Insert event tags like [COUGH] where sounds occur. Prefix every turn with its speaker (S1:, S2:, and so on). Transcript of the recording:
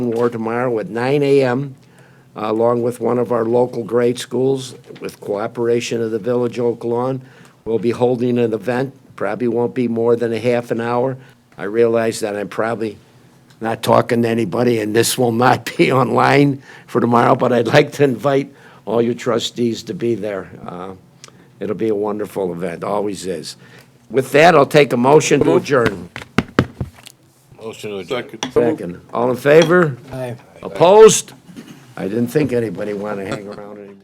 S1: War tomorrow at 9 a.m., uh, along with one of our local grade schools, with cooperation of the Village Oak Lawn. We'll be holding an event, probably won't be more than a half an hour. I realize that I'm probably not talking to anybody, and this will not [LAUGHS] be online for tomorrow, but I'd like to invite all your trustees to be there. Uh, It'll be a wonderful event, always is. With that, I'll take a motion to adjourn.
S2: Motion to adjourn.
S1: Second. All in favor? Opposed? I didn't think anybody wanted to hang around anymore.